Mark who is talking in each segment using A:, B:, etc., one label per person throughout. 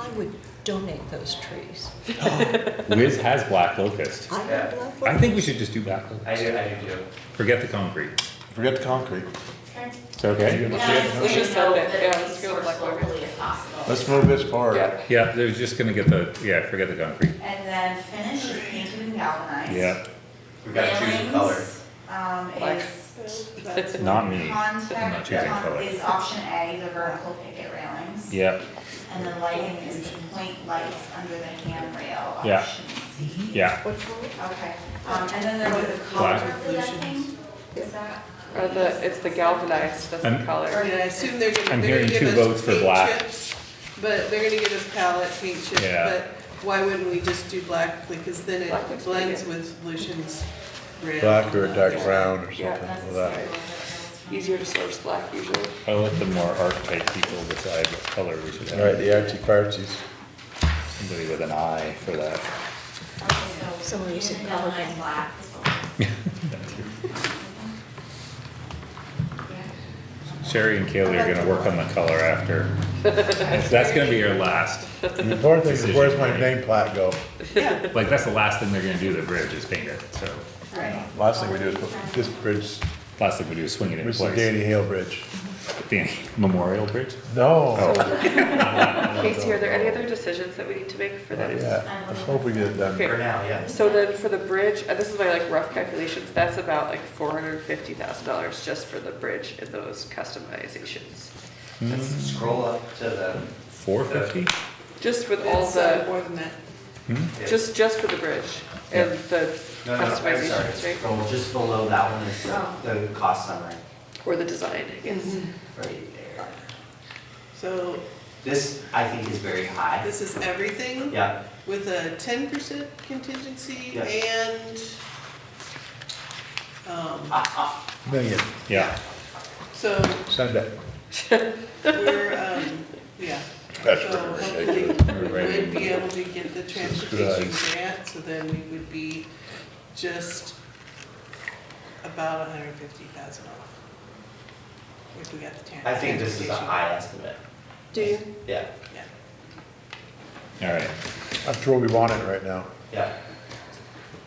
A: I would donate those trees.
B: Wiz has black locust.
A: I
C: Yeah.
A: would love
B: I
A: one.
B: think we should just do black
C: I
B: locust.
C: do, I do too.
B: Forget the concrete.
D: Forget the concrete.
B: It's okay.
E: Yeah, we just said that, yeah, let's go with Black Lord.
D: Let's move this forward.
E: Yeah.
B: Yeah, they're just gonna get the, yeah, forget the concrete.
F: And then finish is painted and galvanized.
B: Yeah,
C: We've got to choose a color.
F: Railings, Um,
E: Black.
F: is
B: not me. I'm not
F: contact,
B: choosing color.
F: con- is option A, the vertical picket railings.
B: Yeah,
F: And then lighting is the point lights under the handrail,
B: Yeah.
F: option C.
B: yeah.
A: What color?
F: Okay, um, and then there was a color
B: Black.
F: for that thing, is that?
E: Or Uh, the, it's the galvanized, that's the
B: I'm-
E: color.
G: Or I assume they're
B: I'm
G: gonna, they're
B: hearing
G: gonna give
B: two
G: us
B: votes for
G: paint
B: black.
G: chips, But they're gonna give us palette paint chips,
B: Yeah.
G: but why wouldn't we just do black? Because then
E: Black
G: it
E: looks pretty
G: blends
E: good.
G: with Lucian's red.
D: Black or a dark brown or
E: Yeah,
D: something
F: that's
D: with
F: the
D: that.
F: story one.
E: Easier to source black usually.
B: I'll let the more archetype people decide what color we should
D: All right,
B: have.
D: the artsy fartsies.
B: Somebody with an eye for that.
F: Okay, so
A: Someone using
F: painted
A: colour.
F: galvanized black is what-
B: Sherry and Kaylee are gonna work on the color after. That's that's gonna be your last,
D: The important thing is,
B: Decision,
D: where's my
B: right.
D: name plaque go?
G: Yeah,
B: like, that's the last thing they're gonna do, the bridge is paint it, so.
G: right.
D: Last thing we do is put this bridge,
B: Last thing we do is swing it in
D: which is the
B: place.
D: Danny Hale Bridge.
B: Danny, Memorial Bridge?
D: No. Oh,
E: Casey, are there any other decisions that we need to make for this?
D: Yeah, let's hope we get it done.
E: Okay.
C: For now, yeah.
E: So then for the bridge, uh, this is my like rough calculations, that's about like four hundred and fifty thousand dollars just for the bridge and those customizations.
C: Scroll up to the,
B: Four fifty?
E: Just with all
G: It's uh,
E: the,
G: more than that.
E: just, just for the bridge and the
C: no, no, I'm sorry,
E: customizations, right?
C: scroll just below that one is the, the cost summary,
E: Or the design, I
C: Mm-hmm.
E: guess.
C: right there.
G: So
C: This, I think, is very high.
G: this is everything
C: Yeah,
G: with a ten percent contingency
C: Yeah.
G: and, um,
D: Million,
B: Yeah.
G: so
D: send it.
G: we're, um, yeah.
D: That's
G: So
E: Oh,
D: ridiculous.
G: hopefully,
B: Right.
G: we would be able to get the transportation
D: Subscribe.
G: grant, so then we would be just about a hundred and fifty thousand off. If we got the tran- transportation.
C: I think this is a high estimate.
G: Do you?
C: Yeah,
G: Yeah.
B: All right,
D: That's where we want it right now.
C: yeah.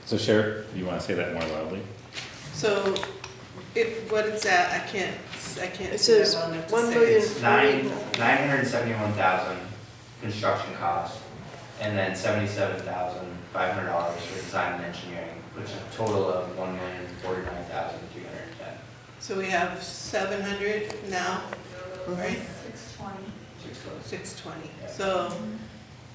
B: so Sheriff, you wanna say that more loudly?
G: So if, what it's at, I can't, s- I can't
A: It
G: see that
A: says
G: well enough to
A: one
G: say.
A: million-
C: It's nine, nine hundred and seventy-one thousand construction cost, and then seventy-seven thousand five hundred dollars for design and engineering, which is a total of one million forty-nine thousand three hundred and ten,
G: So we have seven hundred now, right?
F: Six twenty.
C: six close.
G: Six twenty, so,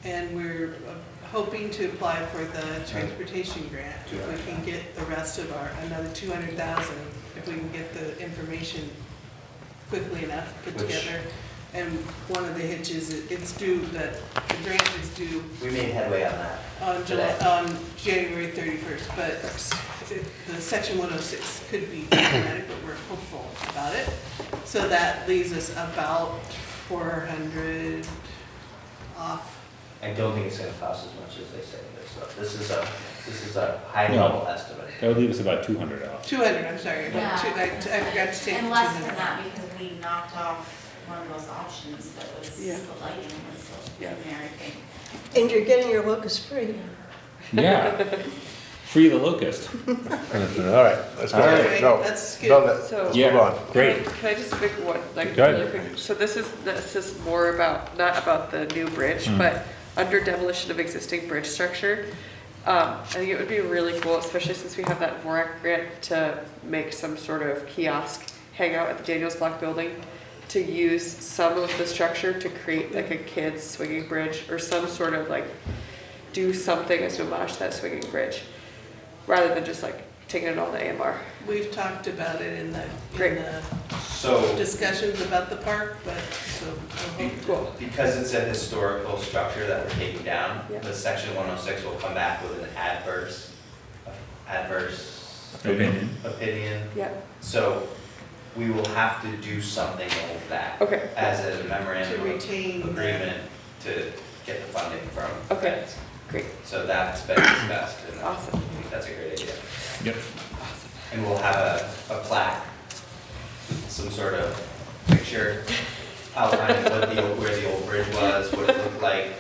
G: and we're uh, hoping to apply for the transportation grant. If we can get the rest of our, another two hundred thousand, if we can get the information quickly enough put
C: Which-
G: together. And one of the hitches, it- it's due, that the grant is due
C: We made headway on that.
G: on Um, July,
C: Today.
G: on January thirty-first, but it- the section one oh six could be problematic, but we're hopeful about it. So that leaves us about four hundred off.
C: I don't think it's gonna cost as much as they say it is, so this is a, this is a
B: No.
C: high-level estimate.
B: That would leave us about two hundred off.
G: Two hundred, I'm sorry, about two, I, I forgot to take the two
F: And less than
G: hundred.
F: that, because we knocked off one of those options that was the
E: Yeah.
F: lighting was the
E: Yeah.
F: primary thing.
A: And you're getting your locust free.
B: Yeah. Free the locust.
D: All right, let's go.
B: All
G: right,
D: No,
G: that's
D: no,
G: good.
D: let-
E: So-
D: let's
B: Yeah.
D: Move on.
B: Great.
E: Um, Can I just pick one, like,
B: Go ahead.
E: really quick? So this is, this is more about, not about the new bridge,
B: Mm.
E: but under demolition of existing bridge structure. Um, I think it would be really cool, especially since we have that VORAC grant, to make some sort of kiosk hangout at the Daniels Block Building, to use some of the structure to create like a kid's swinging bridge, or some sort of like, do something as an homage to that swinging bridge, rather than just like taking it all to AMR.
G: We've talked about it in the, in
E: Great.
G: the
C: So,
G: discussions about the park, but, so, we'll hope to-
E: Cool.
C: because it's a historical structure that we're taking down,
E: Yeah.
C: the section one oh six will come back with an adverse, adverse
B: Opinion.
C: opinion.
E: Yeah,
C: So we will have to do something like that
E: okay,
C: as a
G: to
C: memorandum of
G: retain. the-
C: agreement to get the funding from.
E: Okay. great,
C: So that's been discussed and I
E: awesome.
C: think that's a great idea.
B: Yep.
C: And we'll have a, a plaque, some sort of picture outlining what the, where the